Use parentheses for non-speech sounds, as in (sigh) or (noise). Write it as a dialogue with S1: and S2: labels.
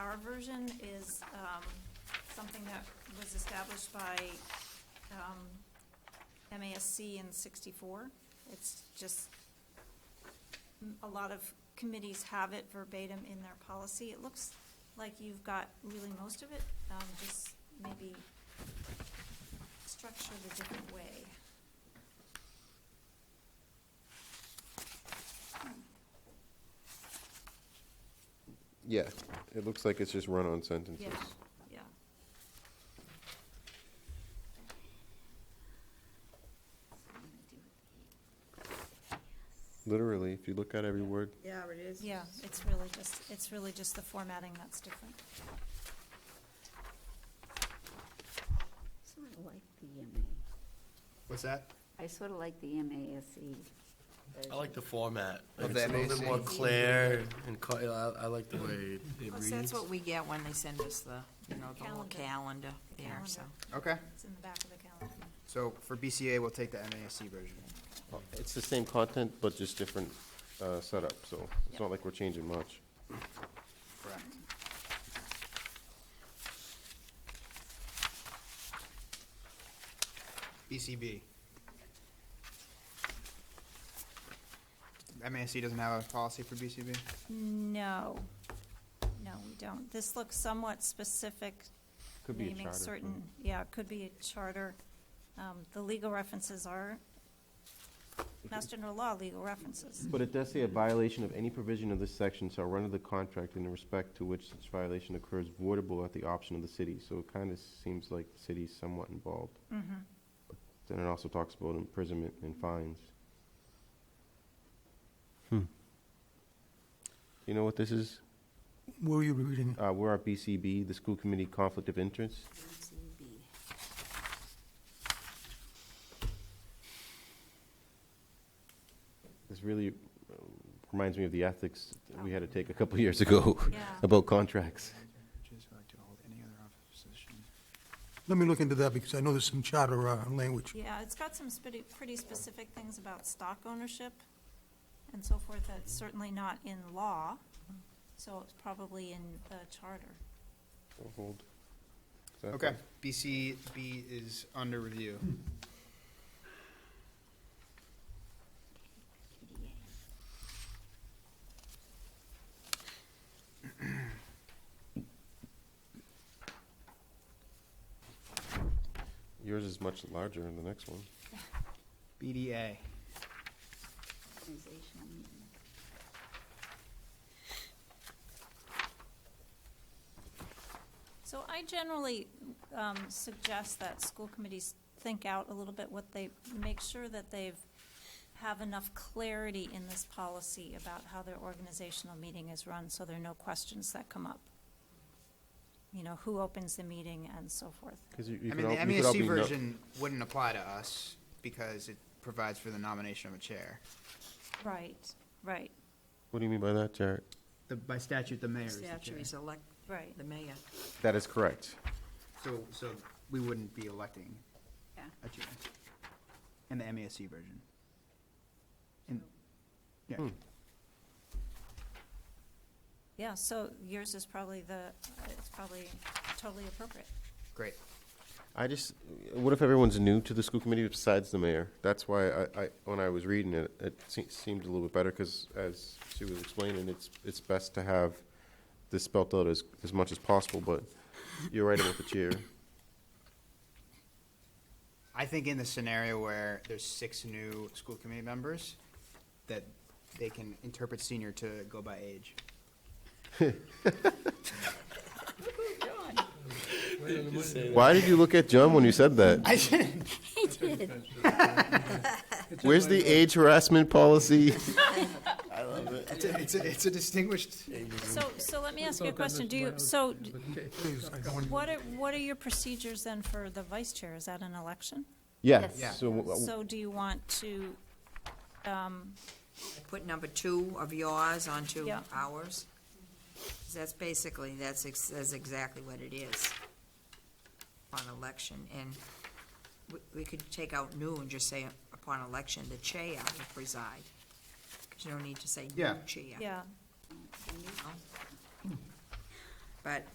S1: version is um, something that was established by um, MASC in 64. It's just, mm, a lot of committees have it verbatim in their policy. It looks like you've got really most of it, um, just maybe structured a different way.
S2: Yeah, it looks like it's just run-on sentences.
S1: Yeah, yeah.
S2: Literally, if you look at every word.
S3: Yeah, it is.
S1: Yeah, it's really just, it's really just the formatting that's different.
S4: Sort of like the MA.
S5: What's that?
S4: I sort of like the MASE.
S5: I like the format.
S6: Of
S5: Like, It's a
S6: the
S5: little bit
S6: MAC.
S5: more clear and, co- I, I like the way it it
S3: Plus,
S5: reads.
S3: that's what we get when they send us the, you know, the whole
S1: Calendar.
S3: calendar there, so.
S1: Calendar.
S6: Okay,
S1: It's in the back of the calendar.
S6: so for BCA, we'll take the MASC version.
S2: It's the same content, but just different uh, setup, so it's not like we're changing much.
S6: Correct. BCB. MASC doesn't have a policy for BCB?
S1: No, no, we don't. This looks somewhat specific,
S2: Could be a
S1: naming
S2: charter. hmm.
S1: certain, yeah, it could be a charter. Um, The legal references are Mass General Law legal references.
S2: But it does say a violation of any provision of this section shall render the contract in the respect to which such violation occurs voidable at the option of the city. So it kind of seems like the city's somewhat involved.
S1: Mhm.
S2: Then it also talks about imprisonment and fines.
S7: Hmm.
S2: You know what this is?
S7: Where were you reading?
S2: Uh, we're at BCB, the School Committee Conflict of Interest.
S4: MCB.
S2: This really uh, reminds me of the ethics that we had to take a couple (laughs) years ago about contracts.
S7: Let me look into that because I know there's some charter uh, language.
S1: Yeah, it's got some spitty- pretty specific things about stock ownership and so forth that's certainly not in law, so it's probably in the charter.
S2: Hold. Is that
S6: Okay, BCB is under review.
S2: the- Yours is much larger than the next one.
S6: BDA.
S4: Organizational meeting.
S1: So I generally um, suggest that school committees think out a little bit what they, make sure that they've, have enough clarity in this policy about how their organizational meeting is run, so there are no questions that come up. You know, who opens the meeting and so forth.
S2: Because you, you
S6: I
S2: could
S6: mean,
S2: all,
S6: the
S2: you could all be
S6: MASC
S2: no-
S6: version wouldn't apply to us because it provides for the nomination of a chair.
S1: Right, right,
S2: What do you mean by that, Jared?
S6: The, by statute, the mayor is the
S3: Statute is
S6: chair.
S3: elect,
S1: right.
S3: the mayor.
S2: That is correct.
S6: So, so we wouldn't be electing
S4: Yeah.
S6: a chair in the MASC version. And, yeah,
S2: Hmm.
S1: Yeah, so yours is probably the, it's probably totally appropriate.
S6: great.
S2: I just, what if everyone's new to the school committee besides the mayor? That's why I, I when I was reading it, it se- seemed a little bit better because as she was explaining, it's, it's best to have this spelt out as, as much as possible, but you're right about the chair.
S6: I think in the scenario where there's six new school committee members, that they can interpret senior to go by age.
S2: Why did you look at John when you said that?
S6: I didn't.
S2: Where's the age harassment policy?
S6: It's a, it's a, it's a distinguished.
S1: So, so let me ask you a question. Do you, so
S7: Please, I don't-
S1: what are, what are your procedures then for the vice chair? Is that an election?
S2: Yeah,
S4: Yes.
S2: so w- w-
S1: So do you want to, um,
S3: Put number two of yours onto
S1: Yeah.
S3: ours. 'Cause That's basically, that's, ex- that's exactly what it is upon election. And we, we could take out new and just say upon election, the chair will preside. 'Cause you don't need to say new
S6: Yeah.
S3: chair.
S1: yeah,
S3: But